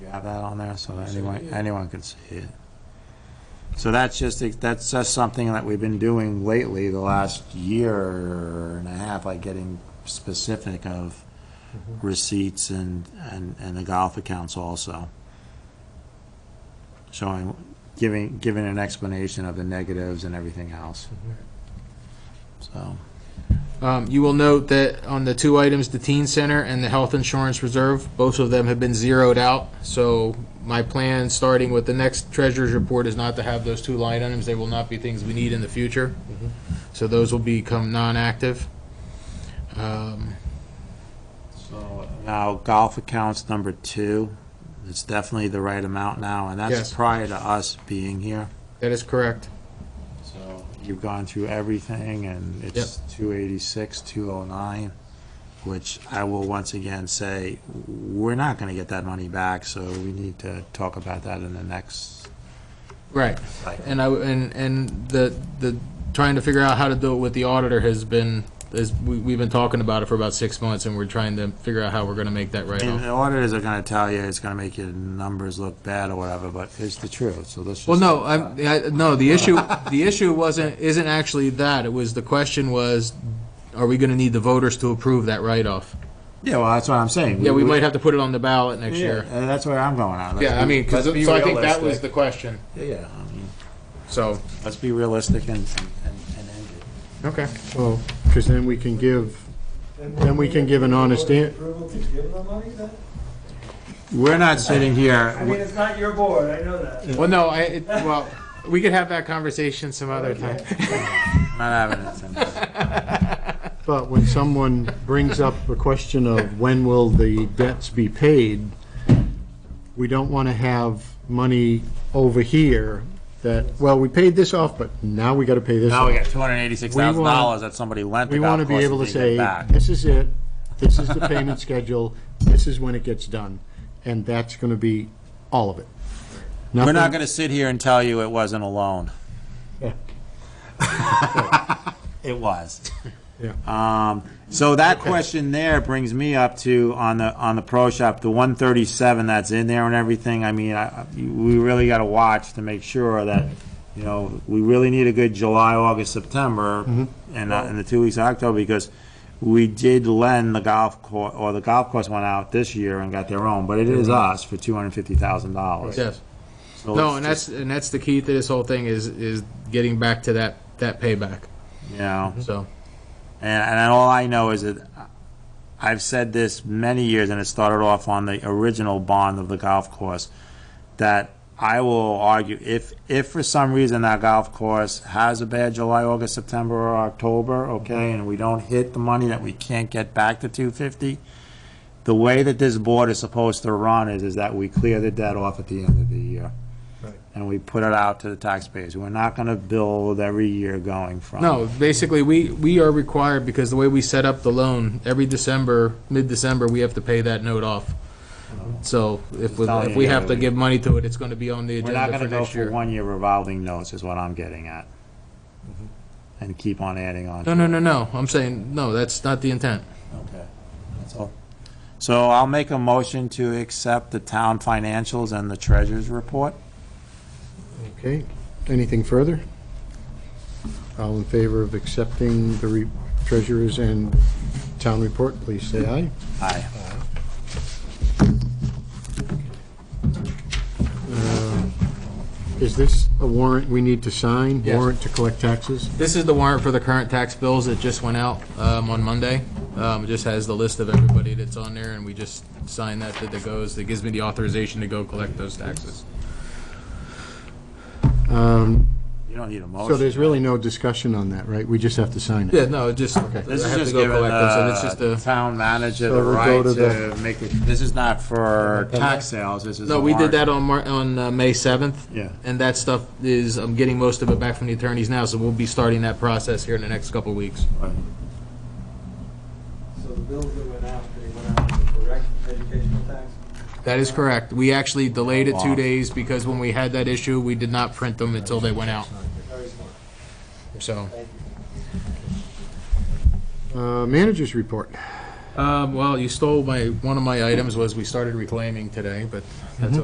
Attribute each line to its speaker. Speaker 1: have that on there so that anyone, anyone can see it. So that's just, that's just something that we've been doing lately, the last year and a half, like getting specific of receipts and, and, and the golf accounts also. Showing, giving, giving an explanation of the negatives and everything else. So,
Speaker 2: Um, you will note that on the two items, the teen center and the health insurance reserve, both of them have been zeroed out. So my plan, starting with the next treasurer's report, is not to have those two line items. They will not be things we need in the future. So those will become non-active. Um,
Speaker 1: So now golf accounts number two, it's definitely the right amount now, and that's
Speaker 2: Yes.
Speaker 1: prior to us being here.
Speaker 2: that is correct.
Speaker 1: So you've gone through everything and it's two eighty-six, two oh nine, which I will once again say, we're not gonna get that money back, so we need to talk about that in the next
Speaker 2: Right.
Speaker 1: cycle.
Speaker 2: And I, and, and the, the, trying to figure out how to do it with the auditor has been, is, we, we've been talking about it for about six months and we're trying to figure out how we're gonna make that right
Speaker 1: And
Speaker 2: off.
Speaker 1: the auditors are gonna tell you it's gonna make your numbers look bad or whatever, but it's the truth, so let's just.
Speaker 2: Well, no, I'm, I, no, the issue, the issue wasn't, isn't actually that. It was, the question was, are we gonna need the voters to approve that write-off?
Speaker 1: Yeah, well, that's what I'm saying.
Speaker 2: Yeah, we might have to put it on the ballot next
Speaker 1: Yeah,
Speaker 2: year.
Speaker 1: and that's where I'm going on. Let's
Speaker 2: Yeah, I
Speaker 1: be-
Speaker 2: mean, 'cause-
Speaker 1: let's be
Speaker 2: so I think that was
Speaker 1: realistic.
Speaker 2: the question.
Speaker 1: Yeah, I mean,
Speaker 2: So,
Speaker 1: let's be realistic and, and, and end it.
Speaker 2: okay.
Speaker 3: Well, because then we can give, Then we can give an honest an-
Speaker 4: Approval to give them money then?
Speaker 1: We're not sitting
Speaker 4: I mean,
Speaker 1: here,
Speaker 4: it's not your board, I know that.
Speaker 2: Well, no, I, it- well, we could have that conversation some other time.
Speaker 1: not having it tonight.
Speaker 3: but when someone brings up the question of when will the debts be paid, we don't want to have money over here that, well, we paid this off, but now we got to pay this
Speaker 1: Now we
Speaker 3: off.
Speaker 1: got two hundred and eighty-six thousand dollars that somebody lent
Speaker 3: We
Speaker 1: without
Speaker 3: want to be
Speaker 1: causing
Speaker 3: able to
Speaker 1: me to
Speaker 3: say,
Speaker 1: get back.
Speaker 3: this is it, this is the payment schedule, this is when it gets done, and that's going to be all of it.
Speaker 1: We're not
Speaker 3: Nothing-
Speaker 1: gonna sit here and tell you it wasn't a loan. It was.
Speaker 3: Yeah.
Speaker 1: Um, so that question there brings me up to, on the, on the pro shop, the one thirty-seven that's in there and everything, I mean, I, I- we really gotta watch to make sure that, you know, we really need a good July, August, September,
Speaker 2: Mm-hmm.
Speaker 1: and, uh, and the two weeks in October, because we did lend the golf course, or the golf course went out this year and got their own, but it is us for two hundred and fifty thousand dollars.
Speaker 2: Yes. Mm-hmm. No, and that's, and that's the key to this whole thing is, is getting back to that, that payback,
Speaker 1: You know.
Speaker 2: so.
Speaker 1: And, and all I know is that I've said this many years, and it started off on the original bond of the golf course, that I will argue, if, if for some reason that golf course has a bad July, August, September, or October, okay, and we don't hit the money that we can't get back to two fifty, the way that this board is supposed to run is, is that we clear the debt off at the end of the year.
Speaker 3: Right.
Speaker 1: And we put it out to the taxpayers. We're not gonna build every year going from.
Speaker 2: No, basically, we, we are required, because the way we set up the loan, every December, mid-December, we have to pay that note off. So if, we- if we have to give money to it, it's gonna be on the
Speaker 1: We're not
Speaker 2: agenda for
Speaker 1: gonna go
Speaker 2: next
Speaker 1: for
Speaker 2: year.
Speaker 1: one-year revolving notes, is what I'm getting at. And keep on adding on.
Speaker 2: No,
Speaker 1: to
Speaker 2: no,
Speaker 1: it.
Speaker 2: no, no, I'm saying, no, that's not the intent.
Speaker 1: Okay, that's all. So I'll make a motion to accept the town financials and the treasurer's report.
Speaker 3: Okay, anything further? All in favor of accepting the re- treasurer's and town report, please say aye.
Speaker 1: Aye.
Speaker 3: Is this a warrant we need to sign?
Speaker 2: Yes.
Speaker 3: Warrant to collect taxes?
Speaker 2: This is the warrant for the current tax bills that just went out, um, on Monday. Um, it just has the list of everybody that's on there, and we just sign that, that it goes, that gives me the authorization to go collect those taxes.
Speaker 3: Um,
Speaker 1: You don't need a motion.
Speaker 3: So there's really no discussion on that, right? We just have to sign it.
Speaker 2: Yeah, no, it just, I have to
Speaker 1: This is just
Speaker 2: go
Speaker 1: giving
Speaker 2: collect those, and it's
Speaker 1: uh,
Speaker 2: just
Speaker 1: the
Speaker 2: a.
Speaker 1: town manager the
Speaker 3: So we'll
Speaker 1: right
Speaker 3: go to
Speaker 1: to make, the- this is not for tax sales, this is.
Speaker 2: No,
Speaker 1: a
Speaker 2: we did
Speaker 1: warrant.
Speaker 2: that on Mar, on uh, May seventh.
Speaker 1: Yeah.
Speaker 2: And that stuff is, I'm getting most of it back from the attorneys now, so we'll be starting that process here in the next couple of weeks.
Speaker 4: So the bills that went out, they went out with the correct educational tax?
Speaker 2: That is correct. We actually delayed it two
Speaker 1: Wow.
Speaker 2: days because when we had that issue, we did not print them until they went out,
Speaker 4: Very smart,
Speaker 2: so.
Speaker 4: thank you.
Speaker 3: Uh, Managers' report.
Speaker 2: Um, well, you stole my, one of my items was we started reclaiming today, but that's